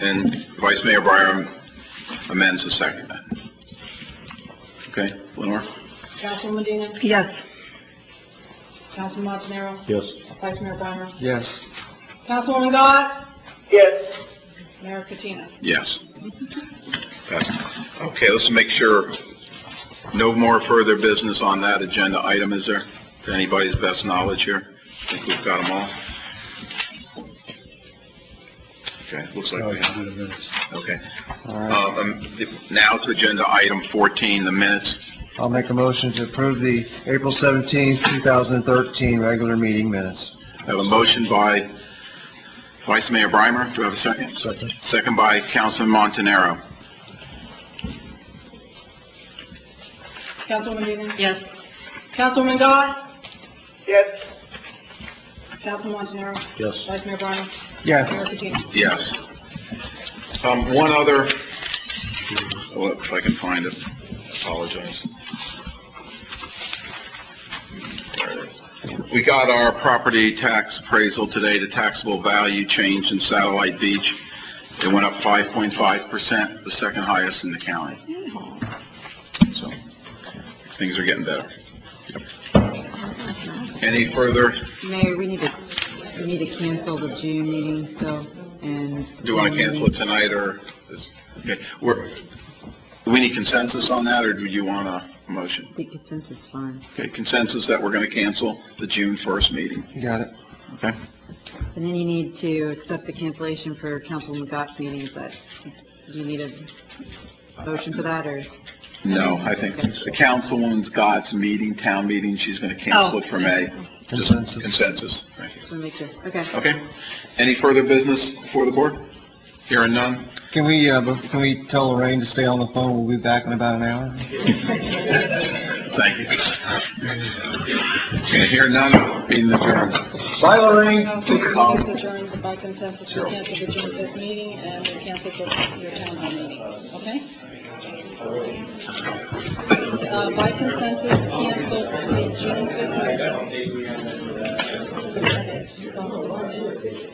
And Vice Mayor Byram amends the second. Okay, Lenore? Councilwoman Dean. Yes. Councilman Montanaro. Yes. Vice Mayor Breimer. Yes. Councilwoman Dodd. Yes. Mayor Katina. Yes. Passed. Okay, let's make sure no more further business on that agenda item is there, to anybody's best knowledge here. I think we've got them all. Okay, looks Oh, like we have. Okay. Uh, um, Now to agenda item 14, the minutes. I'll make a motion to approve the April seventeenth, two thousand and thirteen regular meeting minutes. I have a motion by Vice Mayor Breimer. Do I have a second? Second. Second by Councilman Montanaro. Councilwoman Dean. Yes. Councilwoman Dodd. Yes. Councilman Montanaro. Yes. Vice Mayor Breimer. Yes. Mayor Katina. Yes. Um, one other, well, if I can find it, apologize. There it is. We got our property tax appraisal today, the taxable value change in Satellite Beach. It went up 5.5%, the second highest in the county. So, things are getting better. Any further, Mayor, we need to, we need to cancel the June meeting still, and. do you want to cancel it tonight, or is, okay, we're, do we need consensus on that, or do you want a motion? I think consensus is fine. Okay, consensus that we're going to cancel the June 1st meeting, Got it. okay? And then you need to accept the cancellation for Councilwoman Gott's meeting, is that, do you need a motion for that, or? No, I think the councilwoman's got some meeting, town meeting, she's going to cancel it for May. Just Consensus. Consensus, thank you. Just want to make sure, okay. Okay, any further business before the board? Hearing none? Can we, uh, bef- can we tell Lorraine to stay on the phone? We'll be back in about an hour. Thank you. Okay, hearing none, meeting adjourned. Bye, Lorraine. Council is adjourned by consensus to cancel the June 5th meeting and to cancel for your town hall meeting, okay? Uh, By consensus, cancel the June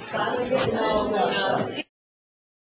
5th meeting. No, no, no.